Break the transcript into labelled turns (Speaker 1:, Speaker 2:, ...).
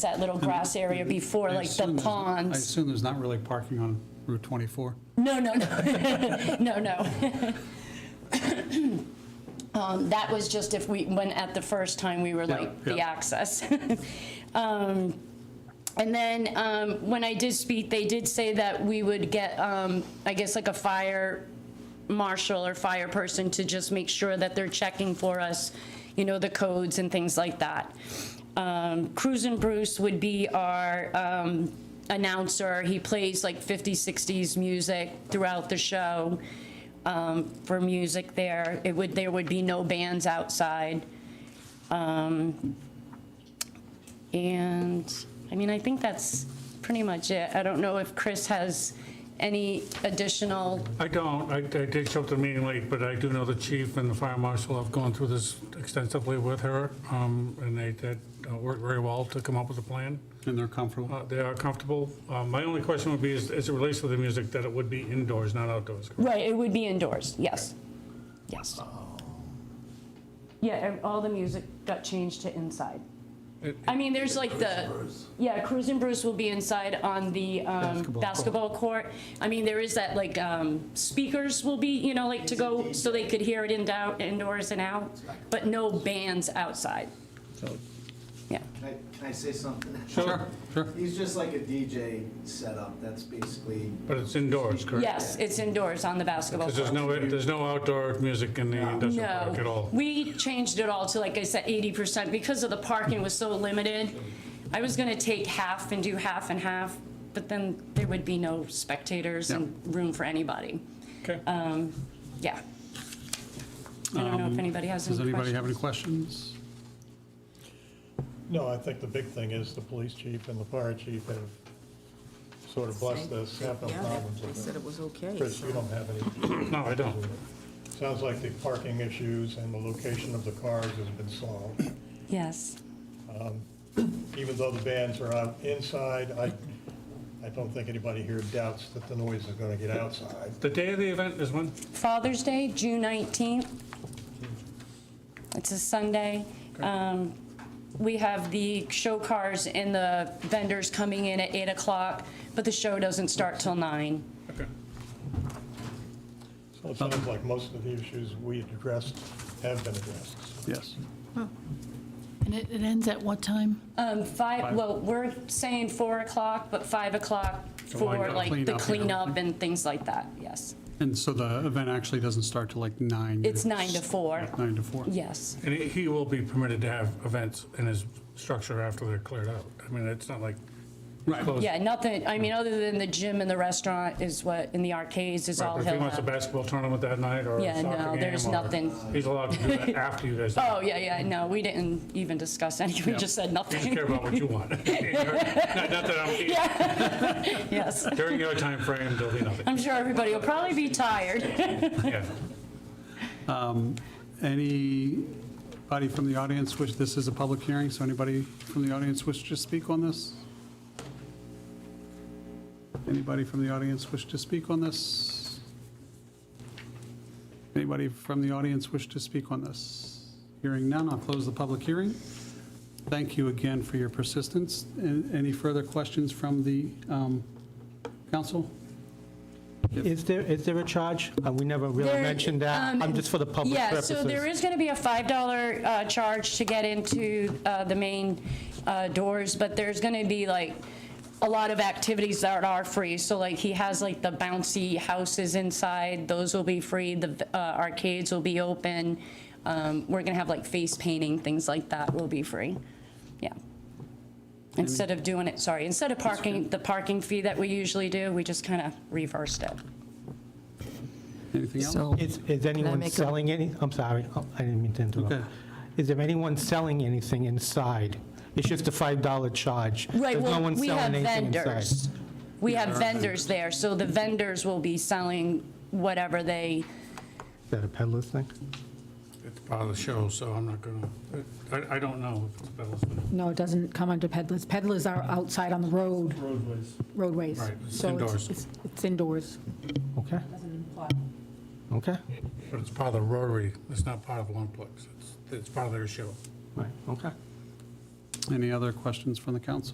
Speaker 1: that little grass area before,
Speaker 2: I
Speaker 1: like the
Speaker 2: assume there's- I
Speaker 1: ponds.
Speaker 2: assume there's not really parking on Route 24.
Speaker 1: No, no, no, no, no. Um, That was just if we, when at the first time, we were
Speaker 2: Yeah,
Speaker 1: like, the
Speaker 2: yeah.
Speaker 1: access. Um, And then um, when I did speak, they did say that we would get, um, I guess, like a fire marshal or fire person to just make sure that they're checking for us, you know, the codes and things like that. Um, Cruz and Bruce would be our um, announcer. He plays like 50s, 60s music throughout the show um, for music there. It would, there would be no bands outside. Um, And, I mean, I think that's pretty much it. I don't know if Chris has any additional,
Speaker 3: I don't, I I did show up to the meeting late, but I do know the chief and the fire marshal have gone through this extensively with her, um, and they did uh, work very well to come up with a plan.
Speaker 2: And they're comfortable.
Speaker 3: Uh, They are comfortable. Uh, My only question would be, is as it relates to the music, that it would be indoors, not outdoors, correct?
Speaker 1: right, it would be indoors, yes, yes. Yeah, and all the music got changed to inside.
Speaker 3: It-
Speaker 1: I mean, there's like the, yeah, Cruz and Bruce will be inside on the um,
Speaker 2: Basketball court.
Speaker 1: basketball court. I mean, there is that, like, um, speakers will be, you know, like to go, so they could hear it in dou- indoors and out, but no bands outside. Yeah,
Speaker 4: Can I, can I say something?
Speaker 2: Sure, sure.
Speaker 4: He's just like a DJ setup, that's basically,
Speaker 3: But it's indoors, correct?
Speaker 1: yes, it's indoors on the basketball
Speaker 3: Because there's
Speaker 1: court.
Speaker 3: no, there's no outdoor music in the industrial park at
Speaker 1: No,
Speaker 3: all.
Speaker 1: we changed it all to, like I said, 80% because of the parking was so limited. I was gonna take half and do half and half, but then there would be no spectators and room for anybody.
Speaker 3: Okay.
Speaker 1: Um, Yeah. I don't know if anybody has
Speaker 2: Does
Speaker 1: any
Speaker 2: anybody have any
Speaker 1: questions.
Speaker 2: questions?
Speaker 5: No, I think the big thing is the police chief and the fire chief have sort of blessed this, have no
Speaker 6: Yeah,
Speaker 5: problems
Speaker 6: They
Speaker 5: with
Speaker 6: said
Speaker 5: it.
Speaker 6: it was okay.
Speaker 5: Chris, you don't have any,
Speaker 3: No, I don't.
Speaker 5: sounds like the parking issues and the location of the cars has been solved.
Speaker 1: Yes.
Speaker 5: Even though the bands are out inside, I, I don't think anybody here doubts that the noise is gonna get outside.
Speaker 3: The day of the event is when?
Speaker 1: Father's Day, June 19th. It's a Sunday. Um, We have the show cars and the vendors coming in at 8 o'clock, but the show doesn't start till 9.
Speaker 3: Okay.
Speaker 5: So it sounds like most of the issues we addressed have been addressed.
Speaker 2: Yes.
Speaker 7: And it, it ends at what time?
Speaker 1: Um, Five, well, we're saying 4 o'clock, but 5 o'clock for
Speaker 2: up,
Speaker 1: like
Speaker 2: clean
Speaker 1: the
Speaker 2: up, yeah.
Speaker 1: cleanup and things like that, yes.
Speaker 2: And so the event actually doesn't start till like nine.
Speaker 1: It's 9 to 4,
Speaker 2: Nine to four.
Speaker 1: yes.
Speaker 3: And he- he will be permitted to have events in his structure after they're cleared out. I mean, it's not like
Speaker 2: Right.
Speaker 3: closed.
Speaker 1: Yeah, nothing, I mean, other than the gym and the restaurant is what, in the arcades is all
Speaker 3: Right, but If he
Speaker 1: he'll
Speaker 3: wants a
Speaker 1: have.
Speaker 3: basketball tournament that night or a
Speaker 1: Yeah,
Speaker 3: soccer game.
Speaker 1: no, there's
Speaker 3: or-
Speaker 1: nothing.
Speaker 3: He's allowed to do that after you guys.
Speaker 1: Oh, yeah, yeah, no, we didn't even discuss any, we
Speaker 2: Yeah.
Speaker 1: just said
Speaker 3: Just care
Speaker 1: nothing.
Speaker 3: about what you want. Not not that I'm,
Speaker 1: Yes,
Speaker 3: during your timeframe, there'll be nothing.
Speaker 1: I'm sure everybody will probably be tired.
Speaker 3: Yeah.
Speaker 2: Anybody from the audience wish, this is a public hearing, so anybody from the audience wish to speak on this? Anybody from the audience wish to speak on this? Anybody from the audience wish to speak on this? Hearing none, I'll close the public hearing. Thank you again for your persistence. And Any further questions from the um, council?
Speaker 8: Is there, is there a charge? Uh, We never really
Speaker 1: There-
Speaker 8: mentioned that.
Speaker 1: um,
Speaker 8: I'm just for the public purposes.
Speaker 1: Yeah, so there is going to be a $5 uh, charge to get into uh, the main uh, doors, but there's going to be like a lot of activities that are free. So like he has like the bouncy houses inside, those will be free, the uh, arcades will be open. Um, We're going to have like face painting, things like that will be free. Yeah. Instead of doing it, sorry, instead of parking, the parking fee that we usually do, we just kind of reversed it.
Speaker 2: Anything else?
Speaker 6: So,
Speaker 8: Is, is anyone
Speaker 6: make a-
Speaker 8: selling any, I'm sorry, oh, I didn't mean to
Speaker 2: Okay.
Speaker 8: interrupt. Is there anyone selling anything inside? It's just a $5 charge.
Speaker 1: Right,
Speaker 8: There's no
Speaker 1: well,
Speaker 8: one
Speaker 1: we have
Speaker 8: selling anything inside.
Speaker 1: vendors. We have vendors there, so the vendors will be selling whatever they,
Speaker 8: Is that a peddler's thing?
Speaker 3: It's part of the show, so I'm not gonna, I, I don't know if it's Bevel's, but
Speaker 9: No, it doesn't come under peddlers. Peddlers are outside on the road,
Speaker 3: roadways.
Speaker 9: roadways.
Speaker 3: Right, it's
Speaker 9: So
Speaker 3: indoors.
Speaker 9: it's- It's indoors.
Speaker 8: Okay, okay,
Speaker 3: But it's part of the Rotary, it's not part of Longplex, it's, it's part of their show.
Speaker 8: right, okay.
Speaker 2: Any other questions from the council?